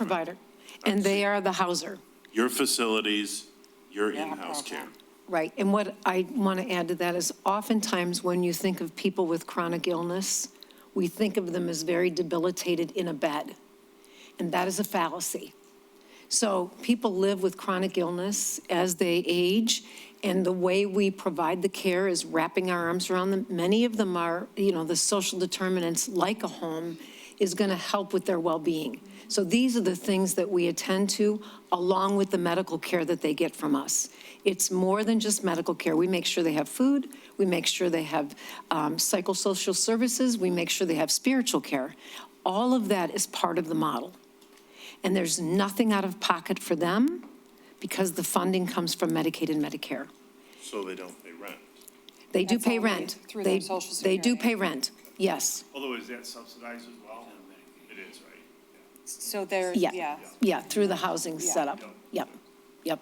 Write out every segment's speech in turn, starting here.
provider, and they are the houser. Your facilities, your in-house care. Right. And what I want to add to that is oftentimes when you think of people with chronic illness, we think of them as very debilitated in a bed, and that is a fallacy. So people live with chronic illness as they age, and the way we provide the care is wrapping our arms around them. Many of them are, you know, the social determinants, like a home, is going to help with their well-being. So these are the things that we attend to, along with the medical care that they get from us. It's more than just medical care. We make sure they have food, we make sure they have um, psychosocial services, we make sure they have spiritual care. All of that is part of the model and there's nothing out of pocket for them because the funding comes from Medicaid and Medicare. So they don't pay rent. They do That's pay all they- rent. through They- their Social They do Security. pay rent, yes, Although is that subsidized as well? It is, right? So there, yeah, yeah. yeah, through the housing Yeah. setup, yep, yep.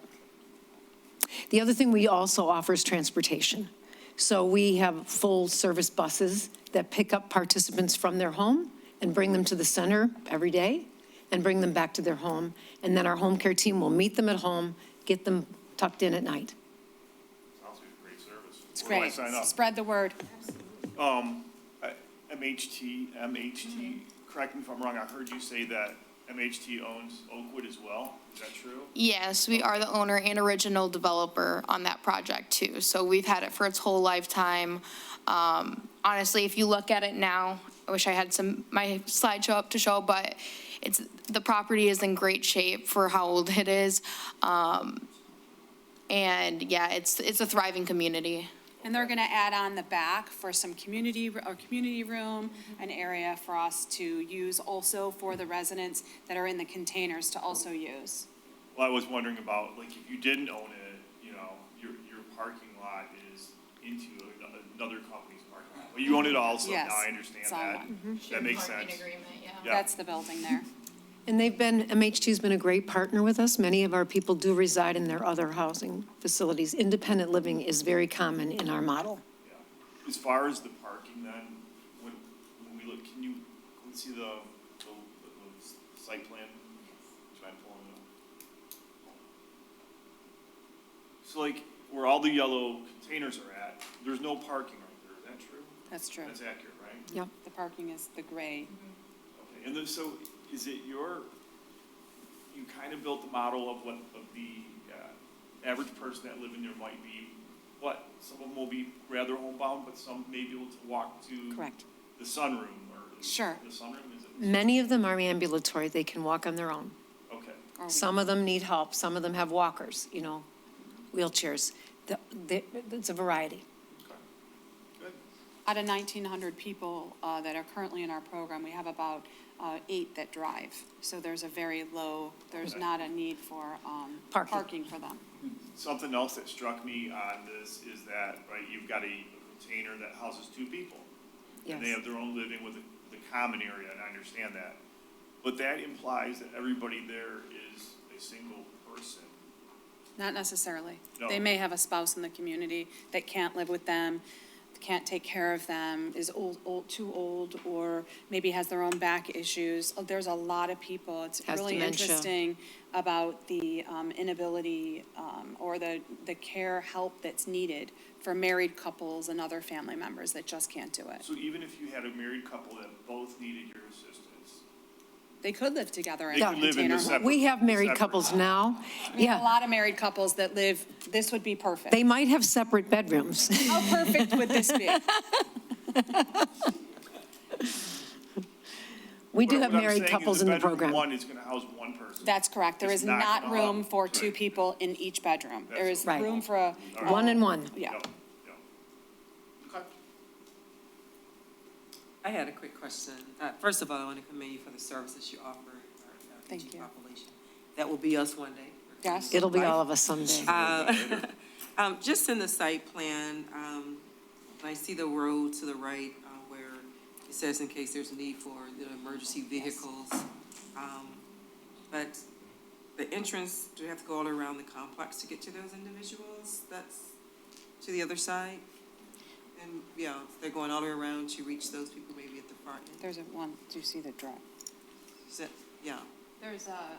The other thing we also offer is transportation. So we have full-service buses that pick up participants from their home and bring them to the center every day and bring them back to their home, and then our home care team will meet them at home, get them tucked in at night. Sounds like a great service. It's Where do I great. sign up? Spread the word. MHT, MHT, correct me if I'm wrong, I heard you say that MHT owns Oakwood as well. Is that true? Yes, we are the owner and original developer on that project too. So we've had it for its whole lifetime. Um, honestly, if you look at it now, I wish I had some, my slideshow up to show, but it's, the property is in great shape for how old it is. Um, and yeah, it's, it's a thriving community. And they're going to add on the back for some community, or community room, an area for us to use also for the residents that are in the containers to also use. Well, I was wondering about, like, if you didn't own it, you know, your, your parking lot is into another company's parking lot. But you own it also, now Yes, I understand it's all Mm-hmm. that. That makes sense. Yeah. That's the building there. And they've been, MHT's been a great partner with us. Many of our people do reside in their other housing facilities. Independent living is very common in our model. Yeah. As far as the parking then, when, when we look, can you, can we see the, the, the site plan? Try and pull it up. So like, where all the yellow containers are at, there's no parking right there, is that true? That's true. That's accurate, right? Yep. The parking is the gray. Okay, and then, so is it your, you kind of built the model of what, of the, uh, average person that live in there might be, what, some of them will be rather homebound, but some may be able to walk to Correct. the sunroom or. Sure. The sunroom, is it? Many of them are ambulatory, they can walk on their own. Mm-hmm. Okay, Or we- Some of them need help, some of them have walkers, you know, wheelchairs. The- the- It's a variety. okay, good. Out of 1,900 people uh, that are currently in our program, we have about uh, eight that drive. So there's a very low, there's not a need for um, Parking. parking for them. Something else that struck me on this is that, right, you've got a container that houses two people. And they Yes. have their own living with the the common area, and I understand that. But that implies that everybody there is a single person. Not necessarily. They No. may have a spouse in the community that can't live with them, can't take care of them, is old, old, too old, or maybe has their own back issues. Oh, There's a lot of people. It's Has really dementia. interesting about the um, inability um, or the, the care help that's needed for married couples and other family members that just can't do it. So even if you had a married couple that both needed your assistance, They could live together in They a could live in container the home. separate- We have married Separate. couples now, A yeah. lot of married couples that live, this would be perfect. They might have separate bedrooms. How perfect would this be? We do What- have what I'm married saying is couples in the bedroom program. One is gonna house one person. That's correct. There It's is not not gonna room happen. for two people in each bedroom. There is Right. room for a. One and one. Yeah. No, no. Okay. I had a quick question. Uh, First of all, I want to commend you for the services you offer our uh, Thank aging you. population. That will be us one day. Yes. It'll be all of us someday. Um, Just in the site plan, um, I see the road to the right uh, where it says in case there's a need for the emergency vehicles. Um, But the entrance, do you have to go all around the complex to get to those individuals? That's to the other side? And, yeah, they're going all the way around to reach those people maybe at the front end? There's a one, do you see the drop? Is that- Yeah. There's a,